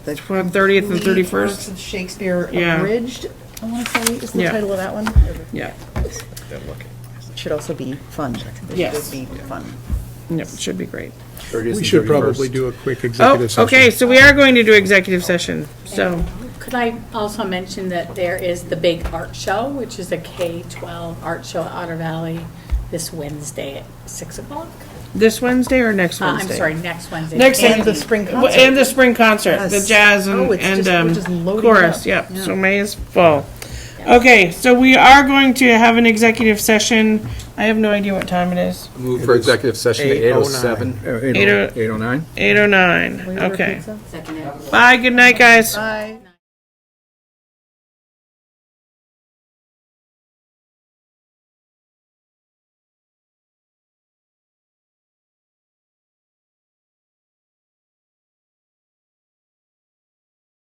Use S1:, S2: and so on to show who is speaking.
S1: The
S2: From 30th and
S1: Leave Works
S2: 31st?
S1: of Shakespeare
S2: Yeah.
S1: abridged, I want to say, is the
S2: Yeah.
S1: title of that one.
S2: Yeah,
S1: Should also be fun.
S2: Yes.
S1: Should be fun.
S2: Yep, should be great.
S3: We should probably do a quick
S2: Oh,
S3: executive session.
S2: okay, so we are going to do executive session, so,
S4: Could I also mention that there is the big art show, which is a K-12 art show at Otter Valley this Wednesday at 6 o'clock?
S2: this Wednesday or next
S4: Uh, I'm
S2: Wednesday?
S4: sorry, next Wednesday.
S2: Next
S1: And the spring
S2: Well, And the spring concert, the
S1: Yes.
S2: jazz and,
S1: Oh, it's
S2: and
S1: just- we're just
S2: um,
S1: loading
S2: chorus,
S1: up.
S2: yep, so May is full. Okay, so we are going to have an executive session, I have no idea what time it is,
S5: Move for executive session to 8:07.
S2: Eight oh-
S3: Eight oh nine?
S2: eight oh nine, okay.
S4: Second.
S2: Bye, good night, guys.
S1: Bye.